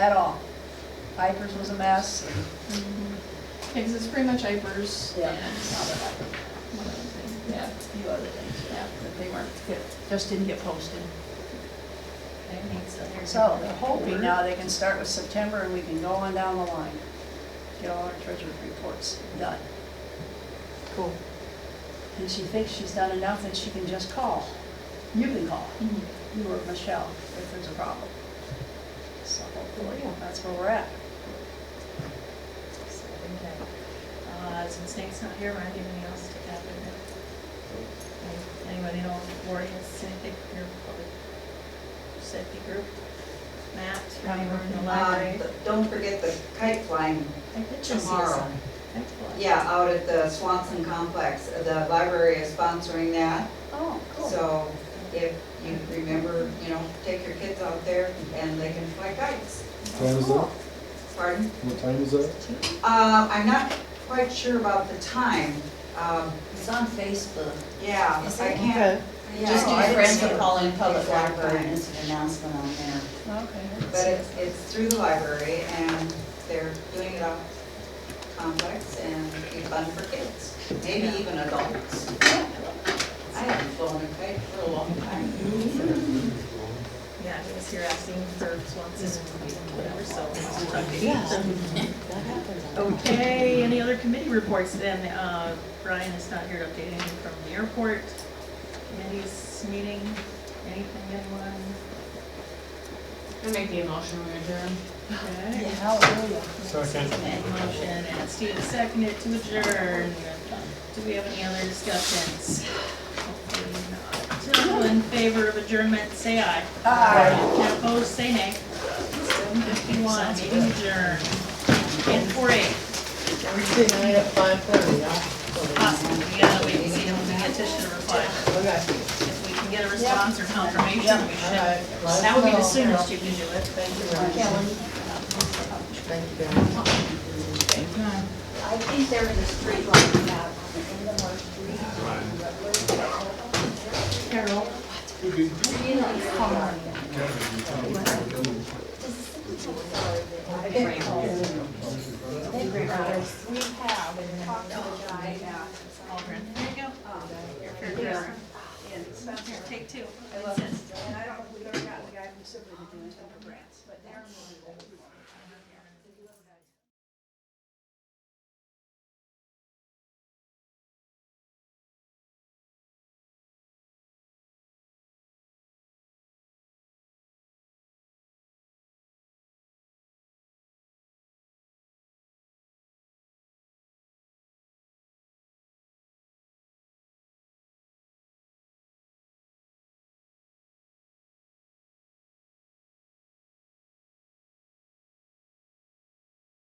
at all. Vipers was a mess. Because it's pretty much Ipers. Yeah. One other thing, Yeah, yeah, a few other things, yeah, but they weren't. yeah. Just didn't get posted. so there's. So they're hoping now they can start with September and we can go on down the line. Get all our treasurer's reports done. Cool. And she thinks she's done enough that she can just call. You can call, Mm-hmm. you or Michelle, if there's a problem. So hopefully, that's where we're at. Okay. Uh, since Nate's not here, Mark, anything else to add in there? Anybody know if Lori has anything for your public safety group? Matt, or anyone in the Um, library? uh, but Don't forget the kite flying I did just see tomorrow. some. Excellent. Yeah, out at the Swanson Complex. The library is sponsoring that. Oh, So if you remember, you know, take your kids out there and they can fly kites. What time is that? Pardon? What time is that? Uh, I'm not quite sure about the time. Um, It's on Facebook. Yeah, Is I it? can't. yeah, Just do I didn't friends see of it. Pauline Public Exactly. Library, and it's an announcement on there. Okay. But it's, it's through the library and they're doing it off complex and it'll be fun for kids, maybe even adults. I haven't flown a kite for a long time. Yeah, he was here asking for Swanson's, whatever, so. Yeah. That happens. Okay, any other committee reports then? Uh, Brian is not here to update anything from the airport. Committees meeting, anything, anyone? I make the emotion adjourn. Okay. Hallelujah. And motion, and Steve seconded to adjourn. Do we have any other discussions? Hopefully not. All in favor of adjournment, say aye. Aye. And opposed, say nay. Seven fifty-one, meeting adjourned. And four eight, Everything I have five thirty, I'll. possible, we gotta wait and see if we get Tisha to reply. Okay. If we can get a response or confirmation, we All should. right. Let That would be the us know. soonest you can do it, but. Thank you, Ellen. Thank you very much. I think there was a street light out on the end of our street. Carol. Really hard. I think we have, and talked to the guy now. Aldrin, there you go. Here, Chris. Here, take two. I love it. And I don't know if we've ever gotten the guy from Sibley to do it for grants, but they're.